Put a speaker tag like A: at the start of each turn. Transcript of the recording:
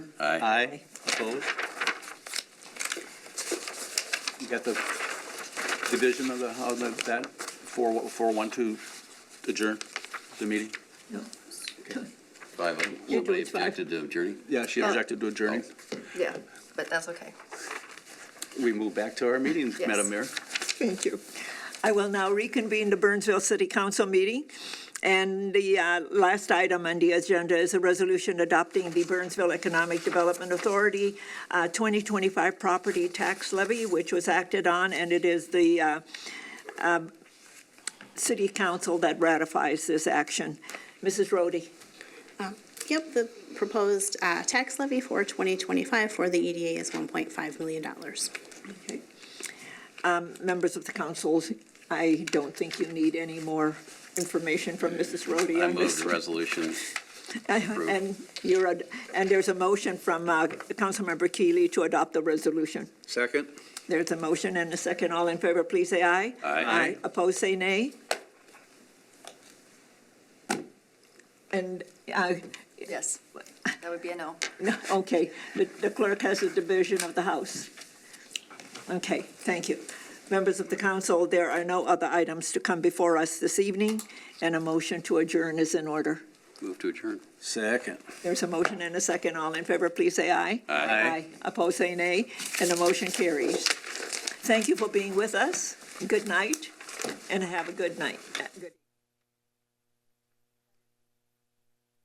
A: Aye.
B: Aye. Opposed? You got the division of the, of the, that, four, four, one, two, adjourn the meeting?
C: No.
A: Five, of them.
C: You're
A: somebody
C: doing five.
A: objected to adjourning?
B: Yeah, she
C: Yeah.
B: objected to adjourning.
C: Yeah, but that's okay.
B: We move back to our meeting,
C: Yes.
B: Madam Mayor.
D: Thank you. I will now reconvene the Burnsville City Council meeting. And the uh, last item on the agenda is a resolution adopting the Burnsville Economic Development Authority uh, 2025 property tax levy, which was acted on, and it is the uh, um, city council that ratifies this action. Mrs. Rhodey?
E: Yep, the proposed uh, tax levy for 2025 for the EDA is $1.5 million.
D: Um, Members of the councils, I don't think you need any more information from Mrs. Rhodey
A: I
D: on
A: move
D: this.
A: the resolution. Approved.
D: Uh-huh. And you're, ad- and there's a motion from uh, Councilmember Keely to adopt the resolution.
B: Second.
D: There's a motion and a second. All in favor, please say aye.
A: Aye.
D: Opposed, say nay. And, uh,
C: Yes, that would be a no.
D: no, okay, the the clerk has a division of the House. Okay, thank you. Members of the council, there are no other items to come before us this evening, and a motion to adjourn is in order.
A: Move to adjourn.
B: Second.
D: There's a motion and a second. All in favor, please say aye.
A: Aye.
D: Opposed, say nay, and the motion carries. Thank you for being with us. Good night, and have a good night. Uh, good-